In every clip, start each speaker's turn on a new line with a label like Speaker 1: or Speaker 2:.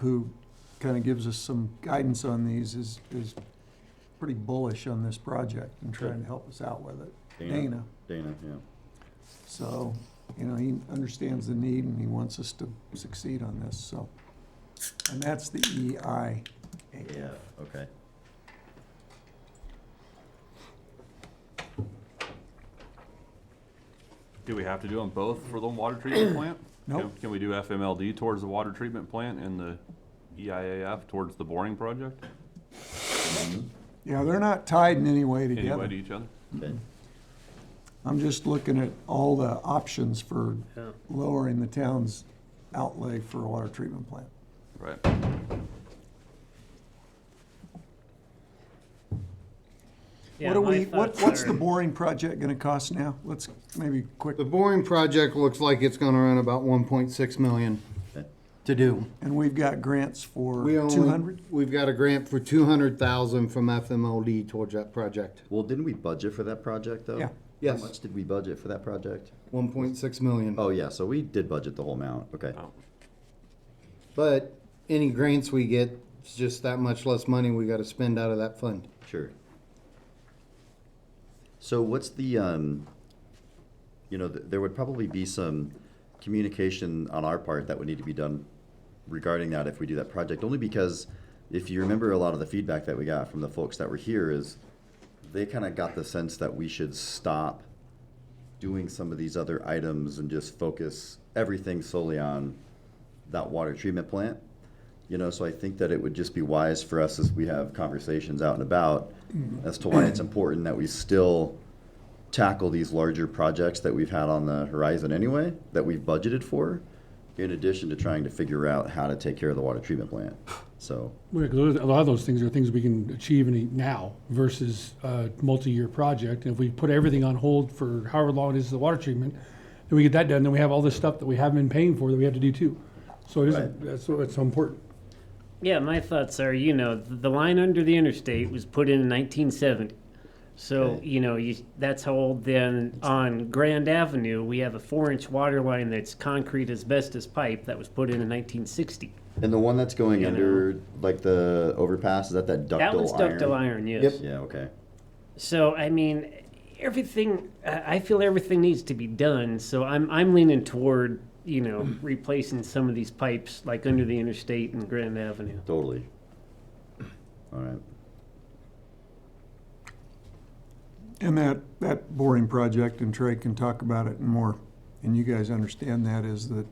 Speaker 1: who kind of gives us some guidance on these, is, is pretty bullish on this project and trying to help us out with it. Dana.
Speaker 2: Dana, yeah.
Speaker 1: So, you know, he understands the need and he wants us to succeed on this, so. And that's the E EI.
Speaker 2: Okay.
Speaker 3: Do we have to do them both for the water treatment plant?
Speaker 1: Nope.
Speaker 3: Can- Can we do FMLD towards the water treatment plant and the E EIAF towards the boring project?
Speaker 1: Yeah, they're not tied in any way
Speaker 3: Anyway,
Speaker 1: together.
Speaker 3: to each other?
Speaker 2: Okay.
Speaker 1: I'm just looking at all the options for
Speaker 4: Yeah.
Speaker 1: lowering the town's outlay for a water treatment plant.
Speaker 3: Right.
Speaker 1: What are we, what, what's the boring project gonna cost now? Let's maybe quick,
Speaker 5: The boring project looks like it's gonna run about one point six million to do.
Speaker 1: and we've got grants for
Speaker 5: We only-
Speaker 1: two hundred?
Speaker 5: We've got a grant for two hundred thousand from FMLD towards that project.
Speaker 2: Well, didn't we budget for that project, though?
Speaker 1: Yeah.
Speaker 5: Yes.
Speaker 2: How much did we budget for that project?
Speaker 5: One point six million.
Speaker 2: Oh, yeah, so we did budget the whole amount, okay.
Speaker 3: Oh.
Speaker 5: But any grants we get, it's just that much less money we gotta spend out of that fund.
Speaker 2: Sure. So what's the, um, you know, th- there would probably be some communication on our part that would need to be done regarding that if we do that project, only because if you remember a lot of the feedback that we got from the folks that were here is they kind of got the sense that we should stop doing some of these other items and just focus everything solely on that water treatment plant. You know, so I think that it would just be wise for us as we have conversations out and about as to why it's important that we still tackle these larger projects that we've had on the horizon anyway, that we've budgeted for, in addition to trying to figure out how to take care of the water treatment plant. So,
Speaker 6: Yeah, 'cause those- a lot of those things are things we can achieve in a now versus a multi-year project. And if we put everything on hold for however long it is the water treatment, then we get that done, then we have all this stuff that we haven't been paying for that we have to do too. So it is,
Speaker 2: Right.
Speaker 6: that's, why it's so important.
Speaker 4: Yeah, my thoughts are, you know, the line under the interstate was put in 1970. So,
Speaker 2: Okay.
Speaker 4: you know, you, that's how old then on Grand Avenue, we have a four inch water line that's concrete asbestos pipe that was put in in 1960.
Speaker 2: and the one that's going
Speaker 4: You
Speaker 2: under, like the overpass, is that that ductile
Speaker 4: that one's
Speaker 2: iron?
Speaker 4: ductile iron, yes.
Speaker 2: Yeah, okay.
Speaker 4: So I mean, everything. I I feel everything needs to be done. So I'm I'm leaning toward you know replacing some of these pipes like under the interstate and Grand Avenue.
Speaker 2: Totally. All right.
Speaker 1: And that, that boring project, and Trey can talk about it more, and you guys understand that, is that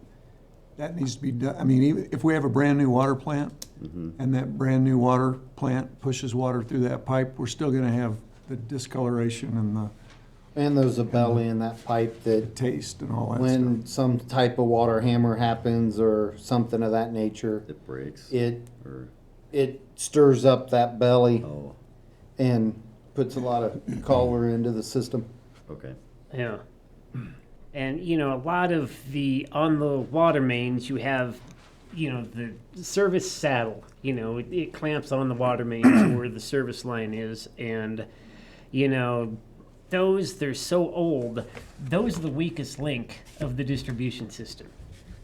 Speaker 1: that needs to be done, I mean, even if we have a brand-new water plant,
Speaker 5: Mm-hmm.
Speaker 1: and that brand-new water plant pushes water through that pipe, we're still gonna have the discoloration and the
Speaker 5: And there's a belly in that pipe that
Speaker 1: taste and all that stuff.
Speaker 5: when some type of water hammer happens or something of that nature,
Speaker 2: It breaks.
Speaker 5: it,
Speaker 2: Or,
Speaker 5: it stirs up that belly
Speaker 2: oh,
Speaker 5: and puts a lot of color into the system.
Speaker 2: okay.
Speaker 4: Yeah. And you know, a lot of the on the water mains, you have, you know, the service saddle. You know, it, it clamps on the water mains where the service line is, and you know, those they're so old. Those are the weakest link of the distribution system.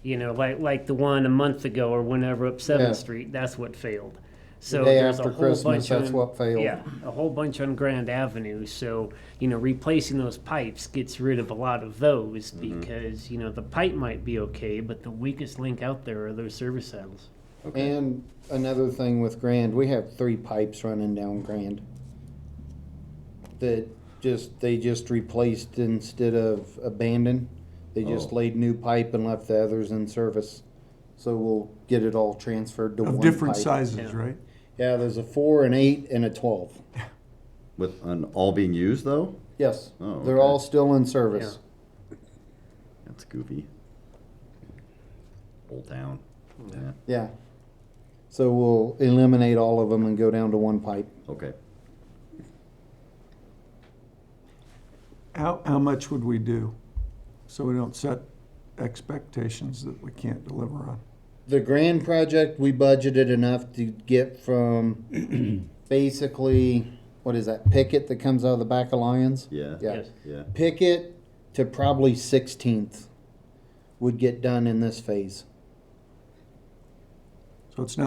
Speaker 4: You know, like like the one a month ago or whenever up Seventh
Speaker 5: Yeah.
Speaker 4: Street. That's what failed. So
Speaker 5: day
Speaker 4: there's a
Speaker 5: after
Speaker 4: whole bunch
Speaker 5: Christmas, that's
Speaker 4: on-
Speaker 5: what failed.
Speaker 4: Yeah, a whole bunch on Grand Avenue. So, you know, replacing those pipes gets rid of a lot of those
Speaker 5: Mm-hmm.
Speaker 4: because, you know, the pipe might be okay, but the weakest link out there are those service saddles.
Speaker 2: Okay.
Speaker 5: And another thing with Grand, we have three pipes running down Grand that just they just replaced instead of abandoned. They just
Speaker 2: Oh.
Speaker 5: laid new pipe and left the others in service. So we'll get it all transferred to
Speaker 1: Of
Speaker 5: one
Speaker 1: different
Speaker 5: pipe.
Speaker 1: sizes,
Speaker 4: Yeah.
Speaker 1: right?
Speaker 5: Yeah, there's a four, an eight, and a twelve.
Speaker 2: With an all being used though?
Speaker 5: Yes,
Speaker 2: Oh,
Speaker 5: they're
Speaker 2: okay.
Speaker 5: all still in service.
Speaker 2: That's goofy. Old town. Yeah.
Speaker 5: yeah. So we'll eliminate all of them and go down to one pipe.
Speaker 2: Okay.
Speaker 1: How, how much would we do? So we don't set expectations that we can't deliver on.
Speaker 5: The grand project, we budgeted enough to get from basically, what is that, picket that comes out of the back of Lions?
Speaker 2: Yeah.
Speaker 5: Yeah.
Speaker 4: Yes.
Speaker 2: Yeah.
Speaker 5: Picket to probably sixteenth would get done in this phase.
Speaker 1: So it's not